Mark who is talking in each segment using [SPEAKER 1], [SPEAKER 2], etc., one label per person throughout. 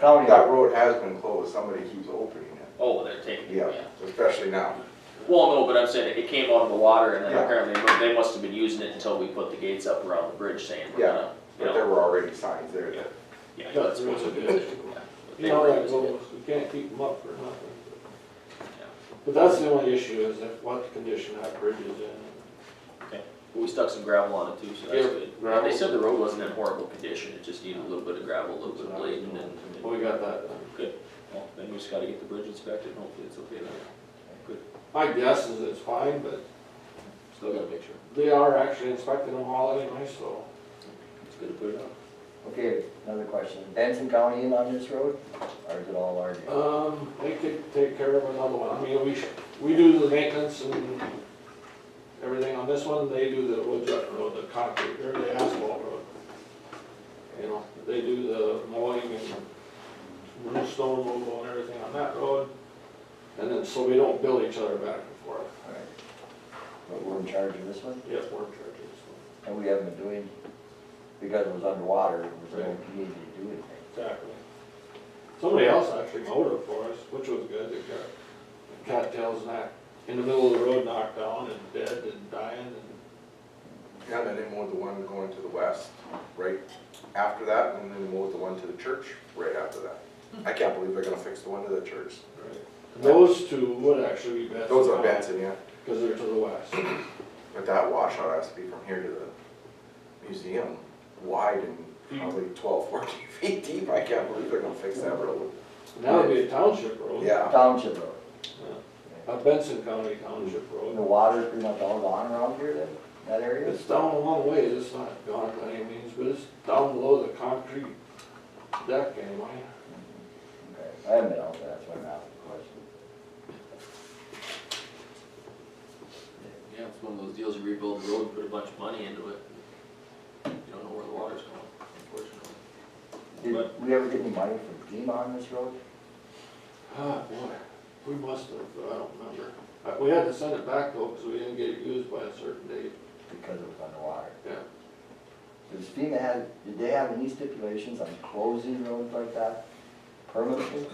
[SPEAKER 1] county.
[SPEAKER 2] That road has been closed, somebody keeps opening it,
[SPEAKER 3] Oh, they're taking it,
[SPEAKER 2] yeah,
[SPEAKER 3] yeah.
[SPEAKER 2] especially now.
[SPEAKER 3] Well, no, but I'm saying it came out of the water and
[SPEAKER 2] Yeah.
[SPEAKER 3] then apparently they mu- they must have been using it until we put the gates up around the bridge saying we're
[SPEAKER 2] Yeah,
[SPEAKER 3] gonna, you
[SPEAKER 2] But there
[SPEAKER 3] know.
[SPEAKER 2] were already signs there that,
[SPEAKER 3] Yeah, that's what it is. Yeah, but
[SPEAKER 4] You
[SPEAKER 3] they
[SPEAKER 4] know,
[SPEAKER 3] were
[SPEAKER 4] that
[SPEAKER 3] using it.
[SPEAKER 4] goes, you can't keep them up for nothing. But that's the only issue is that what condition that bridge is in.
[SPEAKER 3] We stuck some gravel on it too, so that's
[SPEAKER 4] Yeah,
[SPEAKER 3] good.
[SPEAKER 4] gravel.
[SPEAKER 3] They said the road wasn't in horrible condition, it just needed a little bit of gravel, a little bit of blade and then. and then-
[SPEAKER 4] We got that done.
[SPEAKER 3] Well, then we just gotta get the bridge inspected, hopefully it's okay then.
[SPEAKER 4] My guess is it's fine, but
[SPEAKER 3] Still gotta make sure.
[SPEAKER 4] they are actually inspecting them all anyway, so.
[SPEAKER 3] It's good to put it on.
[SPEAKER 1] Okay, another question. Benson County in on this road, or is it all our? deal?
[SPEAKER 4] Um, they could take care of another one. I mean, we, sh- we do the maintenance and everything on this one, they do the wood jut road, the concrete, or the asphalt road. You know, they do the mowing and new stone removal and everything on that road. And then, so we don't bill each other back and forth.
[SPEAKER 1] All right. But we're in charge of this one,
[SPEAKER 4] Yes, we're charging this one.
[SPEAKER 1] and we haven't been doing, because it was underwater, it was no community to do anything.
[SPEAKER 4] Exactly. Somebody else actually mowed it for us, which was good. They got cattails knocked, in the middle of the road knocked down and dead and dying and
[SPEAKER 2] yeah, and then they mowed the one going to the west, right after that, and then they mowed the one to the church right after that. I can't believe they're gonna fix the one to the church.
[SPEAKER 4] Those two would actually be best.
[SPEAKER 2] Those are Benson, yeah,
[SPEAKER 4] Because they're to the west.
[SPEAKER 2] but that washout has to be from here to the museum, wide and probably 12, 14 feet deep, I can't believe they're gonna fix that road.
[SPEAKER 4] And that would be a township road.
[SPEAKER 2] Yeah,
[SPEAKER 1] Township road,
[SPEAKER 4] A Benson County Township
[SPEAKER 1] and
[SPEAKER 4] road.
[SPEAKER 1] the water's pretty much all gone around here then, that area?
[SPEAKER 4] It's down a long ways, it's not gone by any means, but it's down below the concrete deck anyway.
[SPEAKER 1] Okay, I haven't been out there, that's why I'm asking the question.
[SPEAKER 3] Yeah, it's one of those deals, you rebuild the road, put a bunch of money into it. You don't know where the water's going, unfortunately.
[SPEAKER 1] Did we ever get any money from FEMA on this road?
[SPEAKER 4] Ah, boy, we must have, but I don't remember. Uh, We had to send it back though, because we didn't get it used by a certain date.
[SPEAKER 1] Because it was underwater.
[SPEAKER 4] Yeah.
[SPEAKER 1] Does FEMA have, did they have any stipulations on closing roads like that permanently?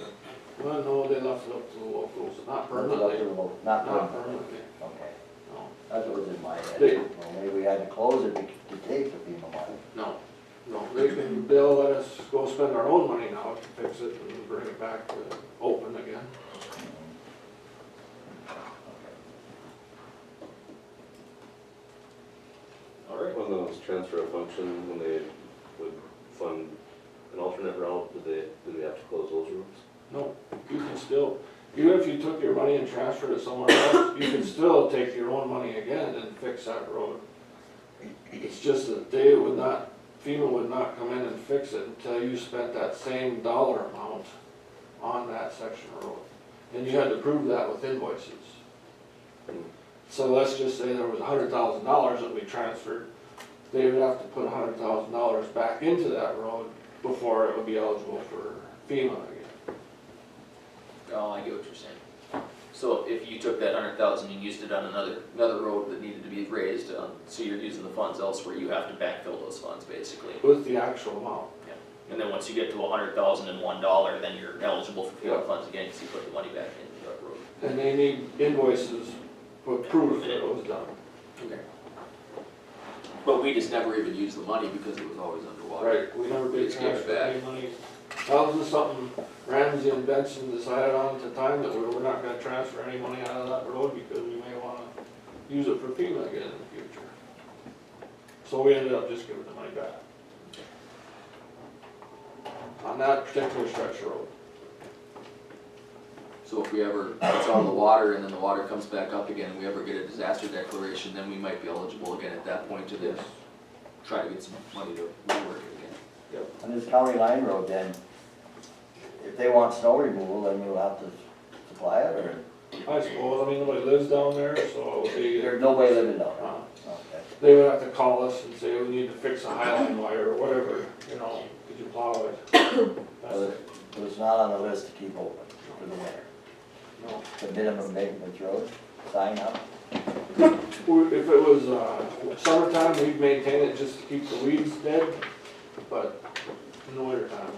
[SPEAKER 4] Well, no, they left it up to the locals, not
[SPEAKER 1] Not
[SPEAKER 4] permanently,
[SPEAKER 1] permanently. Not
[SPEAKER 4] not
[SPEAKER 1] permanently,
[SPEAKER 4] permanently,
[SPEAKER 1] okay.
[SPEAKER 4] no,
[SPEAKER 1] That's what was in my head.
[SPEAKER 4] They-
[SPEAKER 1] Well, maybe we had to close it to to take the FEMA money.
[SPEAKER 4] no. No, they can, they'll let us go spend our own money now to fix it and bring it back to open again.
[SPEAKER 3] All right.
[SPEAKER 5] On those transfer of function, when they would fund an alternate route, did they, did we have to close those routes?
[SPEAKER 4] No, you can still, even if you took your money and transferred it somewhere else, you can still take your own money again and fix that road. It's just that they would not, FEMA would not come in and fix it until you spent that same dollar amount on that section of road. And you had to prove that with invoices. So let's just say there was hundred thousand dollars that we transferred, they would have to put hundred thousand dollars back into that road before it would be eligible for FEMA again.
[SPEAKER 3] Oh, I get what you're saying. So if you took that hundred thousand and used it on another, another road that needed to be raised, um, so you're using the funds elsewhere, you have to backfill those funds basically.
[SPEAKER 4] With the actual amount,
[SPEAKER 3] And then once you get to a hundred thousand and one dollar, then you're eligible for
[SPEAKER 4] Yeah.
[SPEAKER 3] FEMA funds again, cause you put the money back into that road.
[SPEAKER 4] and they need invoices for proof that it was done.
[SPEAKER 3] Okay. But we just never even used the money because it was always underwater.
[SPEAKER 4] Right, we never did
[SPEAKER 3] It's given
[SPEAKER 4] transfer any money. That was just something Ramsey and Benson decided on at the time, that we were not gonna transfer any money out of that road because we may wanna use it for FEMA again in the future. So we ended up just giving the money back. On that particular stretch of road.
[SPEAKER 3] So if we ever, it's on the water and then the water comes back up again, and we ever get a disaster declaration, then we might be eligible again at that point to then try to get some money to rework it again.
[SPEAKER 1] On this county line road then, if they want snow removal, then we'll have to supply it, or
[SPEAKER 4] I suppose, I mean, nobody lives down there, so it would be.
[SPEAKER 1] there's no way living down
[SPEAKER 4] Uh,
[SPEAKER 1] there. Okay.
[SPEAKER 4] they would have to call us and say, we need to fix a highline wire or whatever, you know, could you plow it? That's
[SPEAKER 1] So
[SPEAKER 4] it,
[SPEAKER 1] it was not on the list to keep open for the winter.
[SPEAKER 4] no.
[SPEAKER 1] The minimum maintenance road, sign up.
[SPEAKER 4] We- If it was, uh, summertime, we'd maintain it just to keep the weeds dead, but in the wintertime,